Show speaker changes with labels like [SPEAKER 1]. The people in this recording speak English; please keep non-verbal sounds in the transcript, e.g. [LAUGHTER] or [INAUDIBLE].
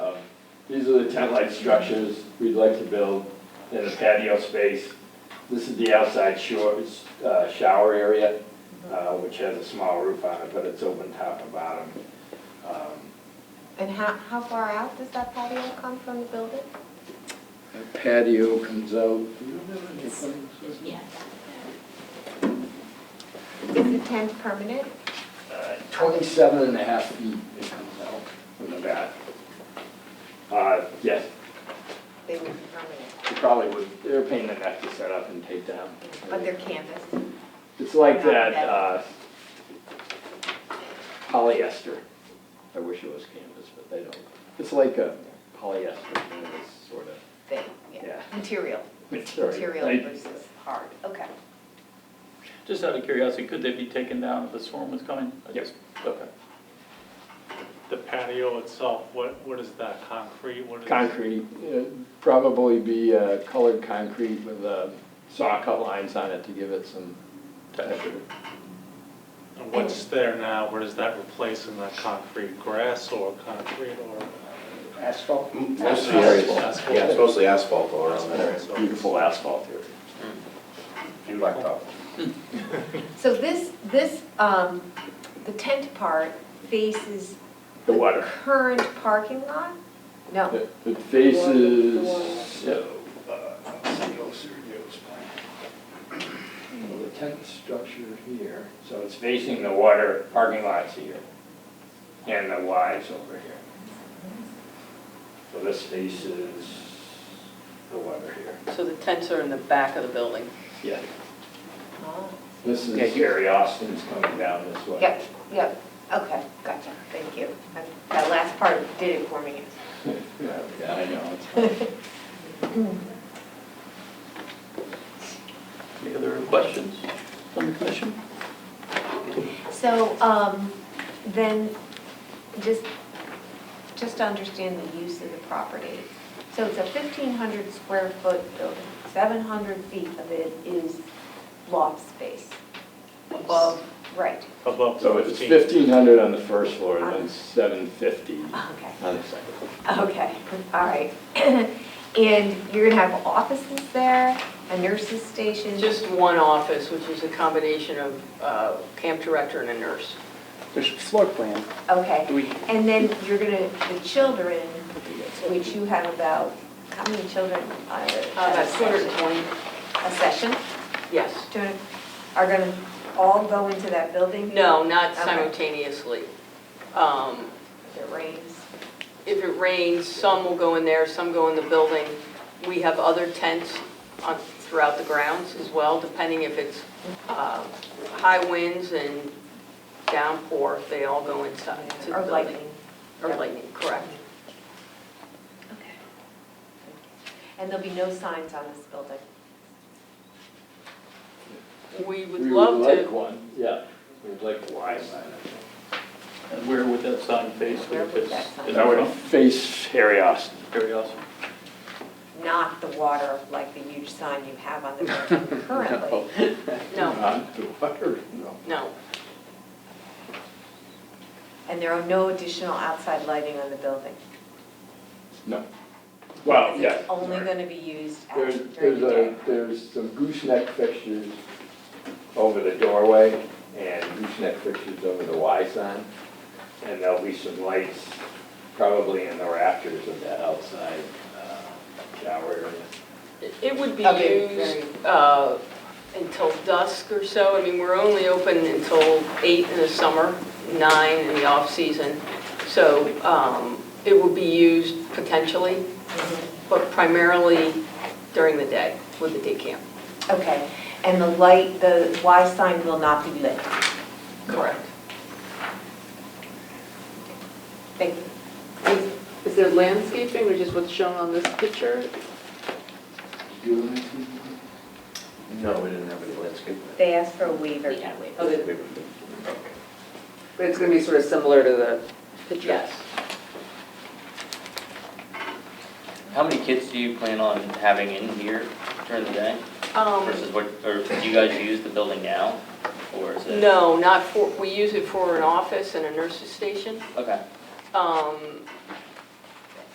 [SPEAKER 1] Um, These are the tent-like structures we'd like to build in a patio space. This is the outside shores, uh, shower area, uh, which has a small roof on it, but it's open top and bottom. Um,
[SPEAKER 2] And how, how far out does that patio come from the building?
[SPEAKER 3] A patio comes out.
[SPEAKER 4] Yeah.
[SPEAKER 2] Is the tent permanent?
[SPEAKER 3] uh, Twenty-seven and a half feet it comes out from the back.
[SPEAKER 1] uh, Yes,
[SPEAKER 2] They would be permanent,
[SPEAKER 1] they probably would, they're a pain in the neck to set up and take down.
[SPEAKER 2] but they're canvas.
[SPEAKER 1] It's like that uh, polyester. I wish it was canvas, but they don't. It's like a polyester, kind of this sort of
[SPEAKER 2] thing,
[SPEAKER 1] Yeah.
[SPEAKER 2] yeah, material,
[SPEAKER 1] material.
[SPEAKER 2] material
[SPEAKER 1] I-
[SPEAKER 2] versus hard, okay.
[SPEAKER 5] Just out of curiosity, could they be taken down if the storm was coming? I
[SPEAKER 1] Yes.
[SPEAKER 5] just- Okay.
[SPEAKER 6] The patio itself, what, what is that, concrete? What is-
[SPEAKER 1] Concrete, uh, probably be uh, colored concrete with uh, saw cut lines on it to give it some texture.
[SPEAKER 6] And what's there now, what does that replace in that concrete, grass or concrete or?
[SPEAKER 3] Asphalt?
[SPEAKER 7] Mostly
[SPEAKER 1] Asphalt.
[SPEAKER 6] Asphalt.
[SPEAKER 7] Yeah, it's mostly asphalt all around there.
[SPEAKER 6] So-
[SPEAKER 1] Beautiful asphalt here.
[SPEAKER 7] And blacktop.
[SPEAKER 2] So this, this, um, the tent part faces
[SPEAKER 1] The water.
[SPEAKER 2] current parking lot? No,
[SPEAKER 1] It- It faces, so, uh,
[SPEAKER 3] Well, the tent structure here.
[SPEAKER 1] so it's facing the water, parking lot's here, and the Y's over here. So this faces the water here.
[SPEAKER 8] So the tents are in the back of the building.
[SPEAKER 1] Yeah.
[SPEAKER 2] oh,
[SPEAKER 1] This
[SPEAKER 3] Yeah,
[SPEAKER 1] is
[SPEAKER 3] here.
[SPEAKER 1] Gary Austin's coming down this way. [LAUGHS]
[SPEAKER 2] yep, yep, okay, gotcha, thank you. That- That last part did it for me.
[SPEAKER 1] Yeah, I know.
[SPEAKER 5] Any other questions from the commission?
[SPEAKER 2] So, um, then, just, just to understand the use of the property. So it's a fifteen hundred square foot building, seven hundred feet of it is loft space above, right, Uh-huh.
[SPEAKER 6] Above
[SPEAKER 1] So it's
[SPEAKER 6] 15.
[SPEAKER 1] fifteen hundred on the first floor, then seven fifty
[SPEAKER 2] [LAUGHS] okay,
[SPEAKER 1] on the second.
[SPEAKER 2] okay, all right. [CLEARS THROAT] And you're gonna have offices there, a nurse's station?
[SPEAKER 8] Just one office, which is a combination of uh, camp director and a nurse.
[SPEAKER 9] There's floor plan. Do
[SPEAKER 2] Okay,
[SPEAKER 9] we,
[SPEAKER 2] and then you're gonna, the children, which you have about, how many children? uh,
[SPEAKER 8] About 220,
[SPEAKER 2] A session?
[SPEAKER 8] yes.
[SPEAKER 2] doing- are gonna all go into that building?
[SPEAKER 8] No, not
[SPEAKER 2] Okay.
[SPEAKER 8] simultaneously. Um,
[SPEAKER 2] If it rains?
[SPEAKER 8] If it rains, some will go in there, some go in the building. We have other tents on- throughout the grounds as well, depending if it's uh, high winds and downpour, they all go inside Uh, to the
[SPEAKER 2] Or
[SPEAKER 8] building.
[SPEAKER 2] lightning?
[SPEAKER 8] Or lightning, correct.
[SPEAKER 2] Okay. And there'll be no signs on this building?
[SPEAKER 8] We would love to.
[SPEAKER 1] one, yeah. We'd like a Y sign.
[SPEAKER 5] And where would that sign face
[SPEAKER 2] Where
[SPEAKER 5] if
[SPEAKER 2] would
[SPEAKER 5] it's?
[SPEAKER 2] that sign
[SPEAKER 5] in
[SPEAKER 1] That would
[SPEAKER 5] front?
[SPEAKER 1] face Harry Austin.
[SPEAKER 5] Very awesome.
[SPEAKER 2] Not the water, like the huge sign you have on
[SPEAKER 1] [LAUGHS]
[SPEAKER 2] the building currently?
[SPEAKER 8] No,
[SPEAKER 1] Not the water, no.
[SPEAKER 8] no.
[SPEAKER 2] And there are no additional outside lighting on the building?
[SPEAKER 1] No. Well,
[SPEAKER 2] Because
[SPEAKER 1] yeah.
[SPEAKER 2] It's only gonna be used at-
[SPEAKER 1] There's,
[SPEAKER 2] during
[SPEAKER 1] there's
[SPEAKER 2] the day?
[SPEAKER 1] a, there's some gooseneck fixtures over the doorway and gooseneck fixtures over the Y sign. And there'll be some lights probably in the rafters of that outside uh, shower area.
[SPEAKER 8] It- It would be
[SPEAKER 2] Okay,
[SPEAKER 8] used uh, until dusk or so. I mean, we're only open until eight in the summer, nine in the off-season. So um, it would be used potentially, but primarily during the day with the day camp.
[SPEAKER 2] Okay, and the light, the Y sign will not be lit?
[SPEAKER 8] Correct.
[SPEAKER 2] Thank you.
[SPEAKER 8] Is there landscaping, which is what's shown on this picture?
[SPEAKER 7] No, we didn't have any landscaping.
[SPEAKER 2] They asked for a waiver.
[SPEAKER 8] But it's going to be sort of similar to the picture? Yes.
[SPEAKER 9] how many kids do you plan on having in here during the day?
[SPEAKER 8] Um,
[SPEAKER 9] Versus what, or do you guys use the building now? Or is it?
[SPEAKER 8] No, not for, we use it for an office and a nurse's station.
[SPEAKER 9] Okay.
[SPEAKER 8] Um,